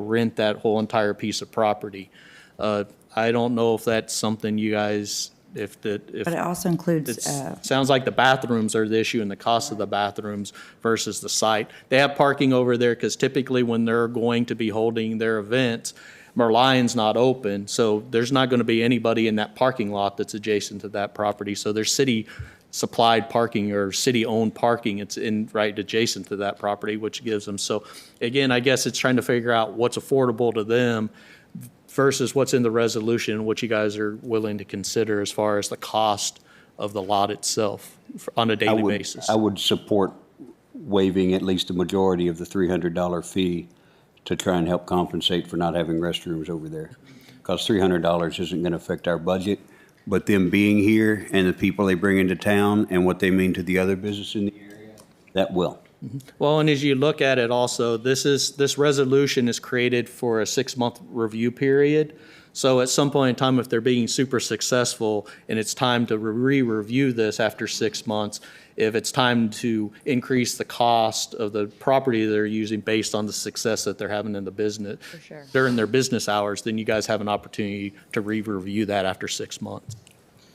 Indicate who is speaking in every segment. Speaker 1: rent that whole entire piece of property. Uh, I don't know if that's something you guys, if the, if
Speaker 2: But it also includes, uh,
Speaker 1: it sounds like the bathrooms are the issue and the cost of the bathrooms versus the site. They have parking over there because typically when they're going to be holding their events, Merlion's not open, so there's not going to be anybody in that parking lot that's adjacent to that property. So there's city-supplied parking or city-owned parking. It's in, right adjacent to that property, which gives them. So again, I guess it's trying to figure out what's affordable to them versus what's in the resolution, and what you guys are willing to consider as far as the cost of the lot itself f- on a
Speaker 3: I
Speaker 1: daily
Speaker 3: would-
Speaker 1: basis.
Speaker 3: I would support waiving at least the majority of the $300 fee to try and help compensate for not having restrooms over there. Because $300 isn't going to affect our budget, but them being here and the people they bring into town and what they mean to the other business in the area, that will.
Speaker 1: Well, and as you look at it also, this is, this resolution is created for a six-month review period. So at some point in time, if they're being super successful and it's time to re-review this after six months, if it's time to increase the cost of the property they're using based on the success that they're having in the business
Speaker 2: sure.
Speaker 1: during their business hours, then you guys have an opportunity to re-review that after six months.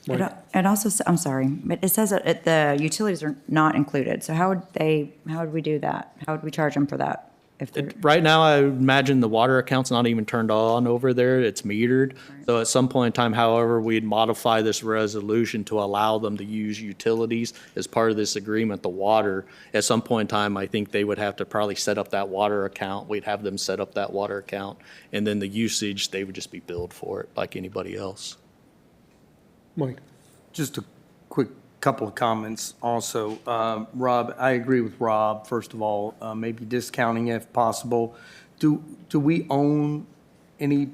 Speaker 2: it al- it also, s- I'm sorry, but it says that it- the utilities are not included. So how would they, how would we do that? How would we charge them for that? If they're,
Speaker 1: Right now, I imagine the water account's not even turned on over there. It's metered. So at some point in time, however, we'd modify this resolution to allow them to use utilities as part of this agreement, the water. At some point in time, I think they would have to probably set up that water account. We'd have them set up that water account. And then the usage, they would just be billed for it like anybody else.
Speaker 4: Mike? Just a quick couple of comments also. Um, Rob, I agree with Rob, first of all, uh, maybe discounting if possible. Do, do we own any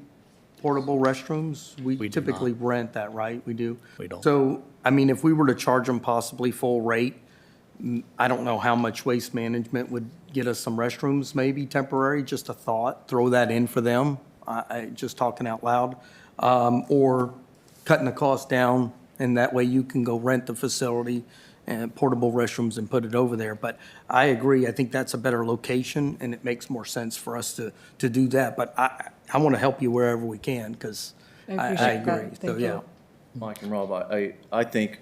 Speaker 4: portable restrooms?
Speaker 1: We
Speaker 4: We
Speaker 1: do not.
Speaker 4: typically rent that, right? We do?
Speaker 1: We don't.
Speaker 4: So, I mean, if we were to charge them possibly full rate, mm, I don't know how much waste management would get us some restrooms, maybe temporary, just a thought, throw that in for them. I, I, just talking out loud. Um, or cutting the cost down, and that way you can go rent the facility and portable restrooms and put it over there. But I agree, I think that's a better location, and it makes more sense for us to, to do that. But I, I want to help you wherever we can, because I,
Speaker 5: I
Speaker 4: I
Speaker 5: appreciate that.
Speaker 4: agree. So,
Speaker 5: Thank you.
Speaker 4: yeah.
Speaker 6: Mike and Rob, I, I I think,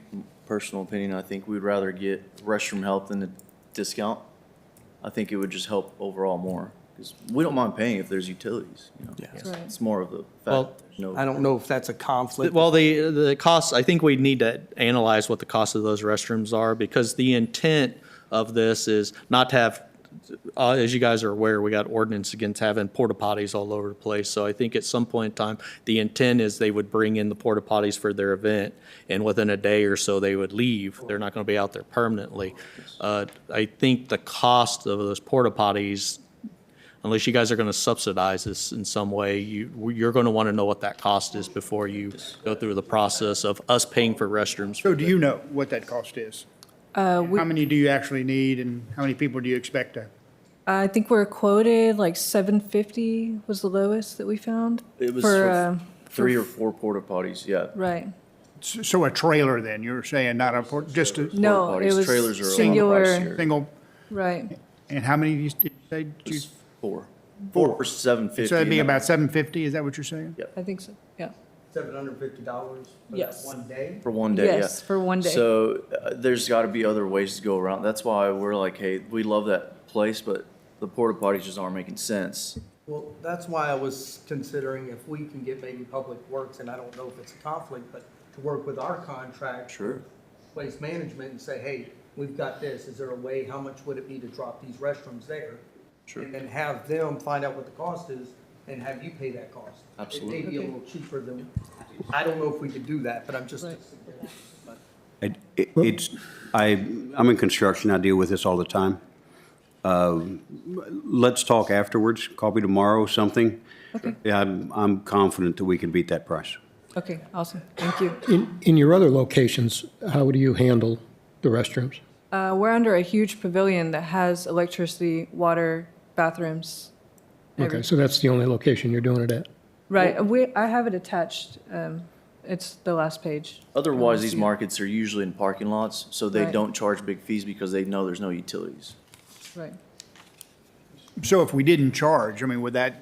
Speaker 6: personal opinion, I think we'd rather get restroom help than a discount. I think it would just help overall more, because we don't mind paying if there's utilities, you know?
Speaker 4: That's
Speaker 5: right.
Speaker 6: It's more of the
Speaker 1: Well,
Speaker 6: fact, there's no.
Speaker 4: I don't know if that's a conflict.
Speaker 1: Well, the, the costs, I think we need to analyze what the cost of those restrooms are, because the intent of this is not to have, uh, as you guys are aware, we got ordinance against having porta potties all over the place. So I think at some point in time, the intent is they would bring in the porta potties for their event, and within a day or so, they would leave. They're not going to be out there permanently. Uh, I think the cost of those porta potties unless you guys are going to subsidize this in some way, you, you're going to want to know what that cost is before you go through the process of us paying for restrooms.
Speaker 7: So do you know what that cost is?
Speaker 5: Uh,
Speaker 7: How many do you actually need and how many people do you expect to?
Speaker 5: I think we're quoted like 750 was the lowest that we found.
Speaker 6: It was
Speaker 5: for,
Speaker 6: for
Speaker 5: uh,
Speaker 6: three or four porta potties, yeah.
Speaker 5: right.
Speaker 7: S- So a trailer then, you're saying not a, por- just a
Speaker 5: No,
Speaker 6: Porta
Speaker 5: it
Speaker 6: potties.
Speaker 5: was
Speaker 6: Trailers are a lot
Speaker 5: singular.
Speaker 6: pricier.
Speaker 7: single,
Speaker 5: Right.
Speaker 7: and how many do you, did you say? did you-
Speaker 6: Four. Four for seven fifty.
Speaker 7: So that'd be about seven fifty, is that what you're saying?
Speaker 5: I think so. Yeah.
Speaker 4: Seven hundred and fifty dollars
Speaker 5: that Yes. one
Speaker 4: day?
Speaker 6: For one day, yeah.
Speaker 5: Yes, for one day.
Speaker 6: So uh, there's got to be other ways to go around. That's why we're like, hey, we love that place, but the porta potties just aren't making sense.
Speaker 4: Well, that's why I was considering if we can get maybe Public Works, and I don't know if it's a conflict, but to work with our contract.
Speaker 6: Sure.
Speaker 4: Place management and say, hey, we've got this, is there a way, how much would it be to drop these restrooms there?
Speaker 6: Sure.
Speaker 4: And then have them find out what the cost is and have you pay that cost. It may be a
Speaker 6: Absolutely.
Speaker 4: little cheaper than, I don't know if we could do that, but I'm just.
Speaker 3: It- it- It's, I, I'm in construction, I deal with this all the time. Uh, Let's talk afterwards, call me tomorrow, something. Yeah, I'm, I'm confident that we can beat that price.
Speaker 5: Okay. Awesome. Thank you.
Speaker 8: In, in your other locations, how do you handle the restrooms?
Speaker 5: Uh, we're under a huge pavilion that has electricity, water, bathrooms.
Speaker 8: Okay, so that's the only location you're doing it at?
Speaker 5: Right. We, I have it attached. Um, it's the last page.
Speaker 6: Otherwise, these markets are usually in parking lots, so they
Speaker 5: Right.
Speaker 6: don't charge big fees because they know there's no utilities.
Speaker 5: Right.
Speaker 7: So if we didn't charge, I mean, would that